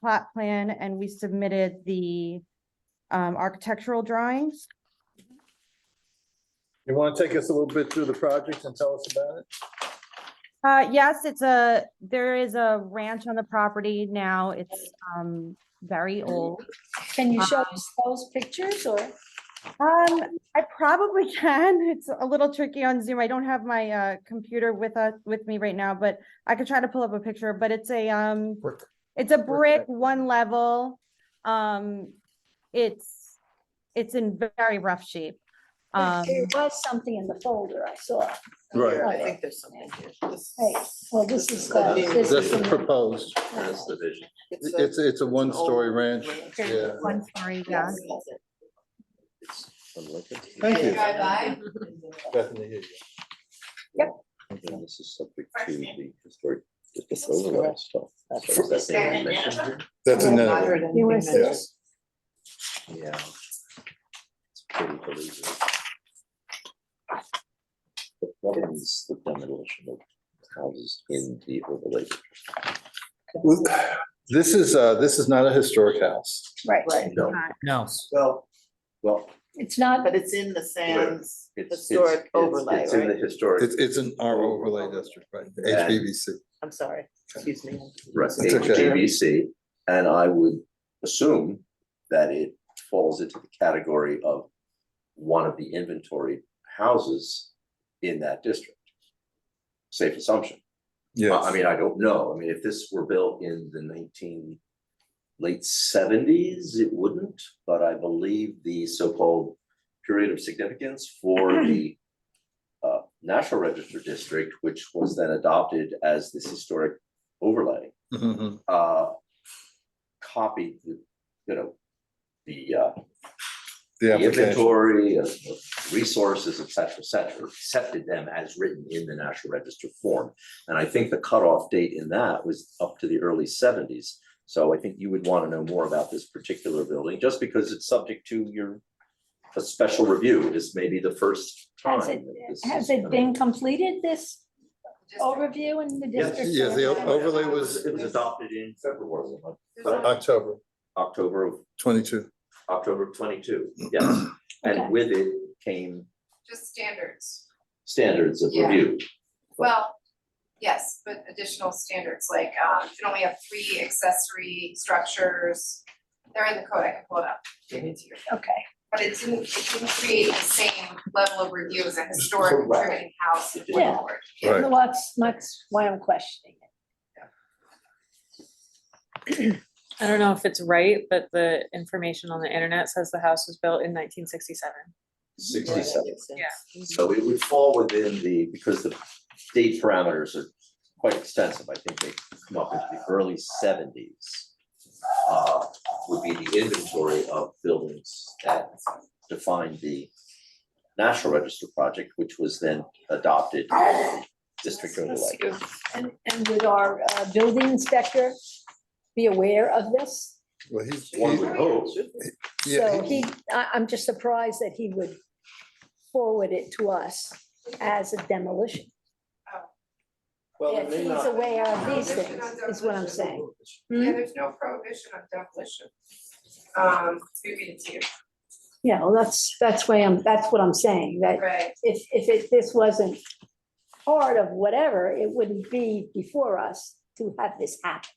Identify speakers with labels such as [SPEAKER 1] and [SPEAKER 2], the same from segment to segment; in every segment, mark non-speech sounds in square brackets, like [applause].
[SPEAKER 1] plot plan and we submitted the um, architectural drawings.
[SPEAKER 2] You want to take us a little bit through the project and tell us about it?
[SPEAKER 1] Uh, yes, it's a, there is a ranch on the property now. It's, um, very old.
[SPEAKER 3] Can you show us those pictures or?
[SPEAKER 1] Um, I probably [laughs] can. It's a little tricky on Zoom. I don't have my, uh, computer with us, with me right now, but I could try to pull up a picture, but it's a, um,
[SPEAKER 4] Brick.
[SPEAKER 1] it's a brick, one level. Um, it's, it's in very rough shape. Um,
[SPEAKER 3] There was something in the folder I saw.
[SPEAKER 2] Right.
[SPEAKER 5] I think there's something here. This-
[SPEAKER 3] Hey, well, this is, uh,
[SPEAKER 5] This
[SPEAKER 3] this
[SPEAKER 2] That's
[SPEAKER 3] is in the-
[SPEAKER 2] proposed.
[SPEAKER 5] That's the vision.
[SPEAKER 2] It's, it's a one-story
[SPEAKER 5] old
[SPEAKER 2] ranch.
[SPEAKER 5] ranch.
[SPEAKER 2] Yeah.
[SPEAKER 1] one story, yeah.
[SPEAKER 2] Thank you.
[SPEAKER 5] Drive
[SPEAKER 2] Bethany, here you
[SPEAKER 6] This is subject to the historic, this overlay stuff. So is that the dimension?
[SPEAKER 2] go. That's in
[SPEAKER 5] I've
[SPEAKER 2] the,
[SPEAKER 5] heard anything
[SPEAKER 3] You wanna
[SPEAKER 5] mentioned.
[SPEAKER 2] yes.
[SPEAKER 3] see
[SPEAKER 6] Yeah. It's pretty believable. It governs the demolition of houses in the overlay.
[SPEAKER 2] This is, uh, this is not a historic house.
[SPEAKER 3] right,
[SPEAKER 5] Right,
[SPEAKER 6] No,
[SPEAKER 4] No,
[SPEAKER 5] well,
[SPEAKER 6] well,
[SPEAKER 3] it's not,
[SPEAKER 5] but it's in the Sands
[SPEAKER 6] it's, it's,
[SPEAKER 5] historic overlay,
[SPEAKER 6] it's in the
[SPEAKER 5] right?
[SPEAKER 2] It's,
[SPEAKER 6] historic,
[SPEAKER 2] it's in our overlay district, right? HBVC.
[SPEAKER 5] I'm sorry, excuse me.
[SPEAKER 6] right,
[SPEAKER 2] It's okay.
[SPEAKER 6] HGVC, and I would assume that it falls into the category of one of the inventory houses in that district. Safe assumption.
[SPEAKER 2] Yeah.
[SPEAKER 6] I I mean, I don't know. I mean, if this were built in the nineteen late seventies, it wouldn't, but I believe the so-called period of significance for the uh, National Register District, which was then adopted as this historic overlay,
[SPEAKER 2] Mhm.
[SPEAKER 6] uh, copied, the, you know, the uh,
[SPEAKER 2] The
[SPEAKER 6] the
[SPEAKER 2] application.
[SPEAKER 6] inventory of of resources, et cetera, et cetera, accepted them as written in the National Register form. And I think the cutoff date in that was up to the early seventies. So I think you would want to know more about this particular building, just because it's subject to your a special review is maybe the first time.
[SPEAKER 3] has it,
[SPEAKER 6] that this
[SPEAKER 3] has
[SPEAKER 6] is
[SPEAKER 3] it
[SPEAKER 6] gonna-
[SPEAKER 3] been completed, this overview in the district?
[SPEAKER 2] yes, the
[SPEAKER 3] plan?
[SPEAKER 2] o- overlay
[SPEAKER 6] It
[SPEAKER 2] was-
[SPEAKER 6] It was adopted in February, like
[SPEAKER 2] October
[SPEAKER 6] October of,
[SPEAKER 2] twenty-two.
[SPEAKER 6] October of twenty-two, yes.
[SPEAKER 3] Okay.
[SPEAKER 6] And with it came
[SPEAKER 7] Just standards.
[SPEAKER 6] standards of
[SPEAKER 7] Yeah.
[SPEAKER 6] review.
[SPEAKER 7] Well, yes, but additional standards, like, um, you can only have three accessory structures. They're in the code, I can pull it up. give it to you.
[SPEAKER 3] Okay,
[SPEAKER 7] But it didn't, it didn't create the same level of review as a historic
[SPEAKER 6] Correct.
[SPEAKER 7] contributing house.
[SPEAKER 6] It didn't.
[SPEAKER 7] went forward.
[SPEAKER 2] Right.
[SPEAKER 3] well, that's, that's why I'm questioning it.
[SPEAKER 8] I don't know if it's right, but the information on the internet says the house was built in nineteen sixty-seven.
[SPEAKER 6] Sixty-seven.
[SPEAKER 8] Yeah.
[SPEAKER 6] So it would fall within the, because the date parameters are quite extensive, I think they come up into the early seventies. Uh, would be the inventory of buildings that defined the National Register project, which was then adopted as a district overlay.
[SPEAKER 3] And, and would our uh, building inspector be aware of this?
[SPEAKER 2] Well, he's,
[SPEAKER 6] One would
[SPEAKER 2] he-
[SPEAKER 6] hope,
[SPEAKER 2] yeah,
[SPEAKER 3] So he, I, I'm just surprised that he would forward it to us as a demolition.
[SPEAKER 6] well,
[SPEAKER 3] If
[SPEAKER 6] it may
[SPEAKER 3] he's
[SPEAKER 6] not.
[SPEAKER 3] aware of these
[SPEAKER 7] There's
[SPEAKER 3] things,
[SPEAKER 7] no
[SPEAKER 3] is what I'm
[SPEAKER 7] demolition.
[SPEAKER 3] saying. Hmm?
[SPEAKER 7] Yeah, there's no prohibition on demolition. Um, we read it to you,
[SPEAKER 3] Yeah, well, that's, that's why I'm, that's what I'm saying, that
[SPEAKER 7] right?
[SPEAKER 3] if, if it, this wasn't part of whatever, it wouldn't be before us to have this happen.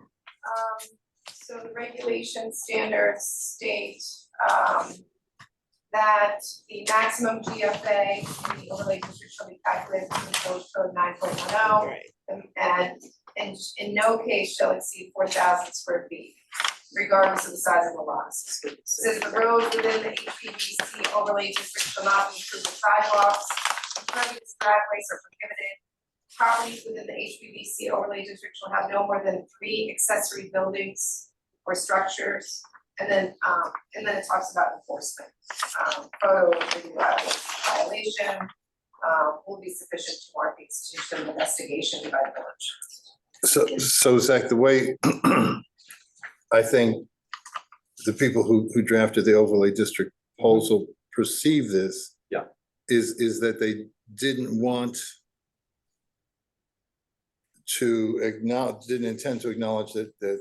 [SPEAKER 7] Um, so the regulation standards state, um, that the maximum GFA in the overlay district shall be calculated from the village code nine point one oh.
[SPEAKER 5] Right.
[SPEAKER 7] And, and in no case shall exceed four thousand square feet, regardless of the size of the lots. Says the roads within the HPDC overlay district shall not be improved with sidewalks, impervious driveways are prohibited. Properties within the HPDC overlay district shall have no more than three accessory buildings or structures. And then, um, and then it talks about enforcement, um, photo violation, um, will be sufficient to warrant the institution of investigation by the village.
[SPEAKER 2] so, so Zach, the way [clears throat] I think the people who, who drafted the overlay district proposal perceive this.
[SPEAKER 6] Yeah.
[SPEAKER 2] Is, is that they didn't want to acknowledge, didn't intend to acknowledge that, that